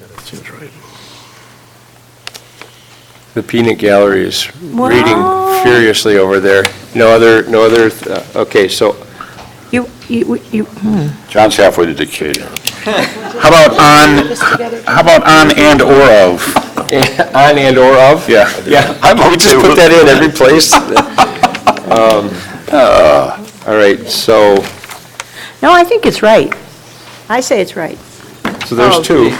That seems right. The peanut gallery is reading Wow. furiously over there. No other, no other, uh, okay, so You, you, you, hmm. John's halfway to Decatur. How about on, how about on and/or of? on and or of? Yeah. Yeah, I'm we just okay put with- that in every place. Um, uh, All right, so, no, I think it's right. I say it's right. so Oh. there's two.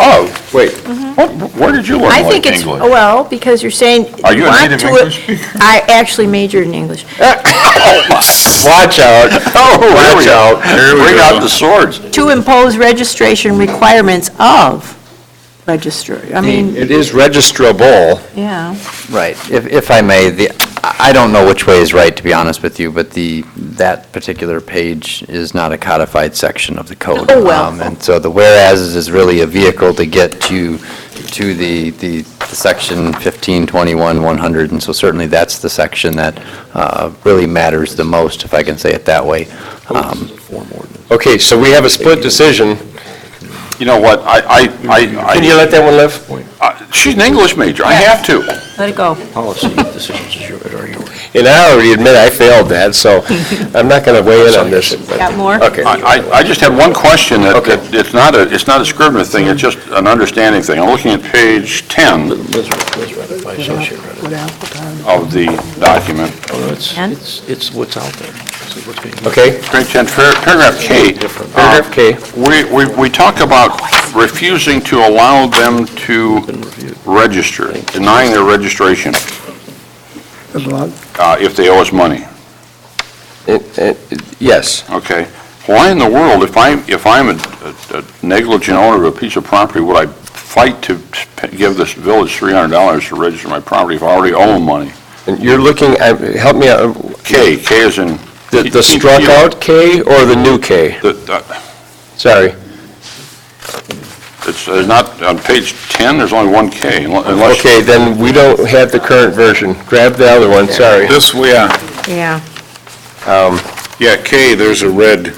Of, Wait, What- where did you learn I like think it's, Oh, English? well, because you're saying. Are you a want native to- English speaker? I actually majored in English. watch out. Watch out. Bring out the swords. To impose registration requirements of register, I mean, It is registrable. yeah. Right. If, if I may, the, I I don't know which way is right, to be honest with you, but the, that particular page is not a codified section of the code. Oh, well. Um, And so the whereas is really a vehicle to get to, to the, the the section 15, 21, 100. And so certainly that's the section that uh, really matters the most, if I can say it that way. Um, Okay, so we have a split decision. You know what, I, I, I- Can you let that one live? I, she's an English major, I have to. Let it go. Policy decisions is your- are yours. And I already admit I failed that, so I'm not going to weigh in on this. but- Got more? Okay. I, I- I just had one question that, Okay. that it's not a, it's not a Scrivener thing, it's just an understanding thing. I'm looking at page 10 Liz, Liz read it, my associate read it. of the document, Oh, no, it's, And? it's, it's what's out there. It's what's being- Okay, Uh, page 10, par- paragraph K. Different. Oh, paragraph K. We, we, we talk about refusing to allow them to Been reviewed. register, denying their registration, uh, if they owe us money. It- it- Uh, Yes. Okay. Why in the world, if I'm, if I'm a- a a negligent owner of a piece of property, would I fight to p- give this village $300 to register my property if I already owe them money? And you're looking, at- help me out, uh, K, K is in... the the struck out K or the new K? The- the- Sorry. It's uh, not, on page 10, there's only one K, unle- unless... Okay, then we don't have the current version. Grab the other one, sorry. This, yeah, Yeah. yeah, K, there's a red,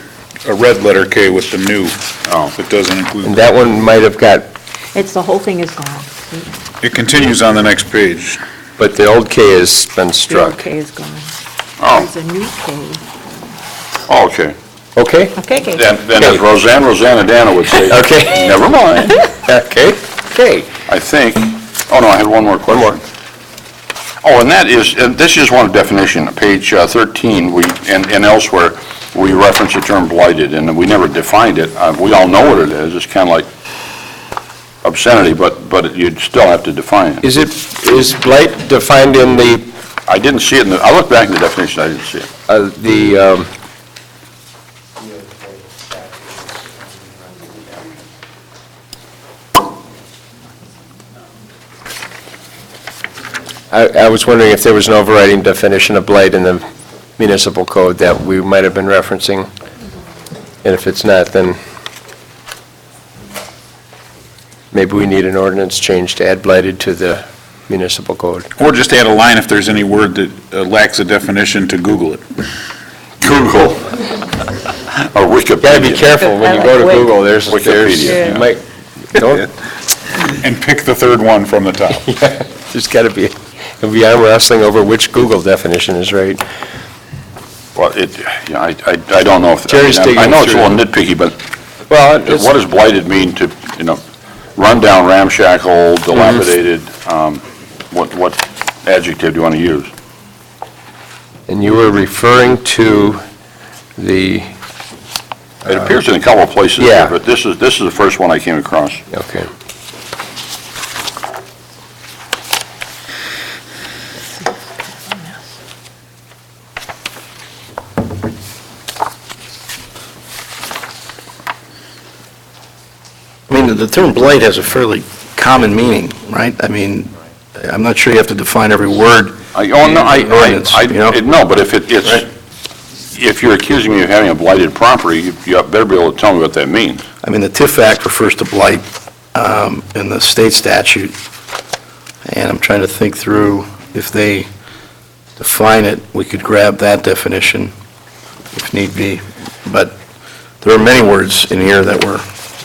a red letter K with the new. Oh. It doesn't And include, that one might have got, It's, the whole thing is gone. it continues on the next page. but the old K has been The old struck. K is gone. Oh, There's a new K. oh, okay. Okay? Okay, K. Then, then as Roseanne, Rosanna Dana would say... Okay. Never mind, Okay? Okay. I think. Oh, no, I had one more question. Oh, and that is, and this is one definition, page uh, 13, we, and and elsewhere, we reference the term blighted, and we never defined it. Uh, We all know what it is, it's kind of like obscenity, but, but you'd still have to define it. Is it, is blight defined in the, I didn't see it in the, I looked back in the definition, I didn't see it. uh, the, um, I I was wondering if there was an overriding definition of blight in the municipal code that we might have been referencing, and if it's not, then maybe we need an ordinance change to add blighted to the municipal code. Or just add a line if there's any word that uh, lacks a definition to Google it. Google. Or Wikipedia. Got to be careful when you go to Google, there's, there's, Wikipedia, you might, don't, And pick the third one from the top. there's got to be, it'll be arm wrestling over which Google definition is right. Well, it, yeah, I, I I don't know if... Jerry's I mean, I- I know it's a digging little nitpicky, but Well, it's- what does blighted mean to, you know, rundown, ramshackle, Mm-hmm. dilapidated? um, What, what adjective do you want to use? and you were referring to the, It appears in a couple of places Uh, yeah. here, but this is, this is the first one I came across. okay. I mean, the term blight has a fairly common meaning, right? I mean, I'm not sure you have to define every word. I, oh, no, I, I, Ordinance, you know? I- it- no, but if it, it's, if you're accusing me of having a blighted property, you you better be able to tell me what that means. I mean, the TIF Act refers to blight um, in the state statute, and I'm trying to think through if they define it, we could grab that definition if need be, but there are many words in here that were